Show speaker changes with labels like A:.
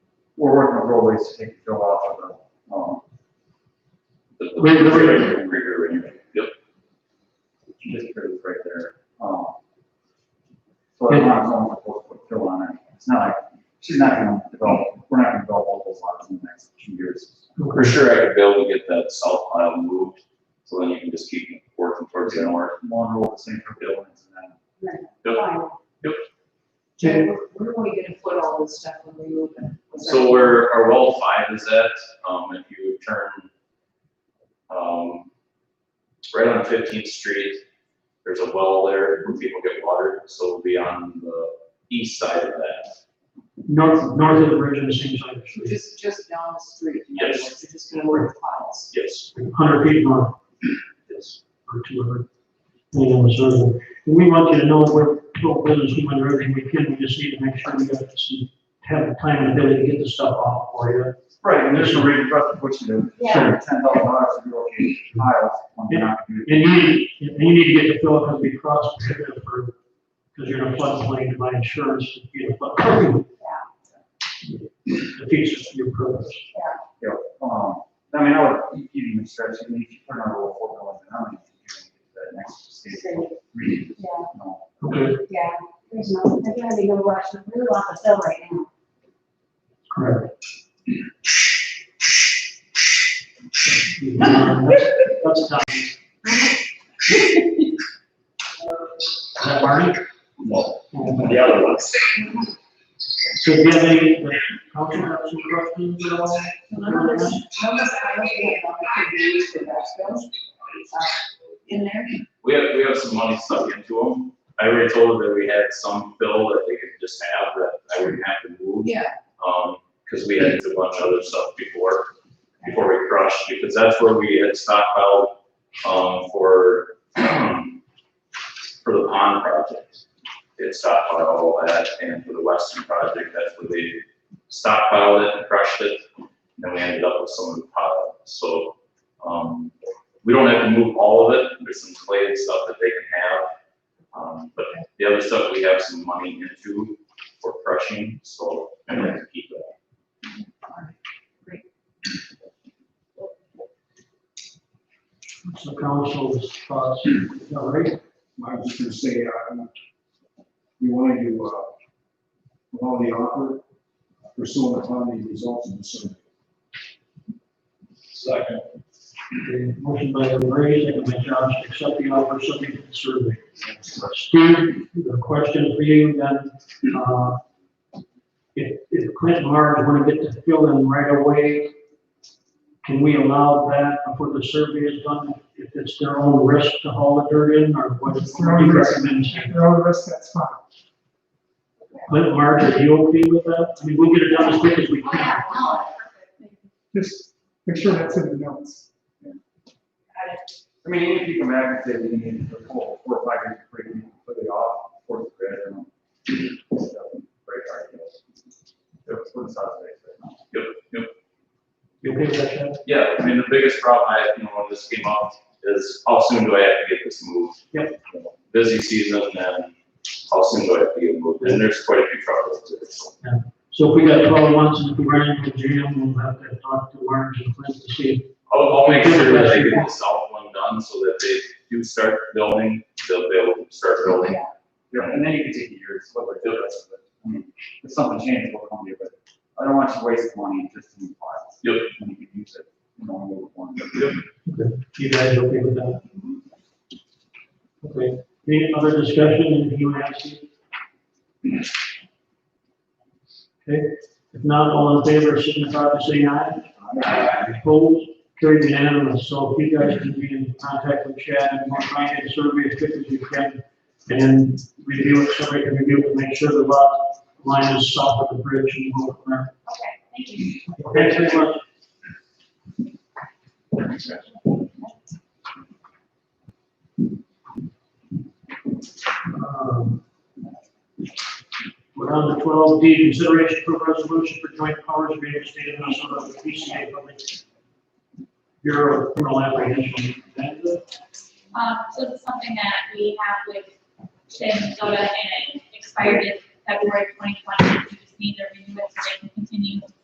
A: we're working on roadways to take the fill off of the, um,
B: The- the-
A: Wait, wait,
B: the- rear anyway. Yep,
A: this bridge right there. Um, So I want someone to put put fill on it. It's not like, she's not gonna develop, we're not gonna develop all those lots in the next few years.
B: for sure I could be able to get that south aisle moved, so then you can just keep working towards the north.
A: One road, the same for buildings and then
C: Fine.
B: Yep.
C: Jay, where where are we gonna put all this stuff when we move it? Was that-
B: So where our well five is at, um, if you turn, um, right on Fifteenth Street, there's a well there where people get water, so it'll be on the east side of that.
D: North, north of the bridge on the same side of the street,
C: Just, just down the street. in
B: Yes.
C: other words, You're just gonna work the piles.
B: Yes,
D: hundred feet north
B: yes.
D: or two hundred. You know, so we want you to know we're full business, we want to do everything we can, we just need to make sure we got some, have the time and ability to get the stuff off for you.
A: Right, and there's no reason for us to push it to
C: Yeah.
A: ten thousand dollars to relocate miles when we're not gonna do
D: And you need, and you need to get the fill because we crossed the river for, because you're in a floodplain to buy insurance, you know, but. The features of your purpose.
A: you know, um, I mean, I would even stretch, I mean, if you put another roll four going down, you can do that next stage.
E: Yeah,
A: Really, no.
D: Okay,
E: yeah, there's no, there's gonna be no rush, we're off the fill right now.
D: correct. That's time. Is that Barney?
B: The other ones.
D: So do you have any, uh, council have some questions at all?
C: Remember this, remember this highway we have on the TV for Vasco? Uh, In there?
B: We have, we have some money stuck into them. I already told her that we had some bill that they could just have that I wouldn't have to move.
C: Yeah.
B: um, because we had a bunch of other stuff before, before we crushed, because that's where we had stockpiled, um, for, for the pond project. They had stockpiled all that, and for the western project, that's where they stockpiled it and crushed it, and then we ended up with some of the pile, so, um, we don't have to move all of it, there's some clay and stuff that they can have, um, but the other stuff, we have some money into, for crushing, so I'm gonna have to keep that.
D: So council's thoughts, is that right?
F: I was just gonna say, uh, we wanted to, uh, allow uh, the offer pursuant upon the results of the survey.
D: Okay, Motion by Ray, second by Josh, to accept the offer subject to the survey. Steve, a question for you then, uh, if, if Clint Mars want to get to fill in right away, can we allow that before the survey is done, if it's their own risk to haul the dirt in, or what what do you recommend?
G: Road risk, that's fine.
D: Clint Mars, are you okay with that? I mean, we'll get it done as quick as we can.
E: Yeah, no,
C: Oh,
G: Just make sure that's in the notes.
A: I mean, even if you come back and say we need to pull four or five years to break, it, put it off, for the grid, I don't know. Very hard, you know. It's what it's out there, but no.
B: Yep, yep.
D: You okay with that, Chad?
B: Yeah, I mean, the biggest problem I had, you know, when this came up is how soon do I have to get this moved?
D: Yep.
B: Busy season and how soon do I have to get it moved? And there's quite a few troubles to it, so.
D: So if we got twelve months and if we run into a jam, we'll have to talk to Orange and Clint to see.
B: I'll, I'll make sure that they get the south one done so that they do start building, they'll be able to start building.
A: Yeah, and then you can take a year, it's what we're doing, but, I mean, if something changes, we'll come to you, but I don't want you to waste money just in files.
B: Yep.
A: And you can use it, you know, move one.
B: Yep.
D: if You guys okay with that? Okay, any other discussion that you want to ask? Okay, if not, all in favor, signify by saying aye. Opposed, carried unanimous, so if you guys can be in contact with Chad and Mark, try and get a survey as quick as you can, and review it, survey and review it, make sure the lot line is south of the bridge and go from there.
E: okay, thank you.
D: Thanks very much. Um, We're on to twelve D, consideration for resolution for joint powers between the state of Minnesota and the PCA Public Bureau of Criminal Apprehension.
H: Um, so this is something that we have with state of Minnesota and it expired in February twenty twenty. We just need to renew it so they can continue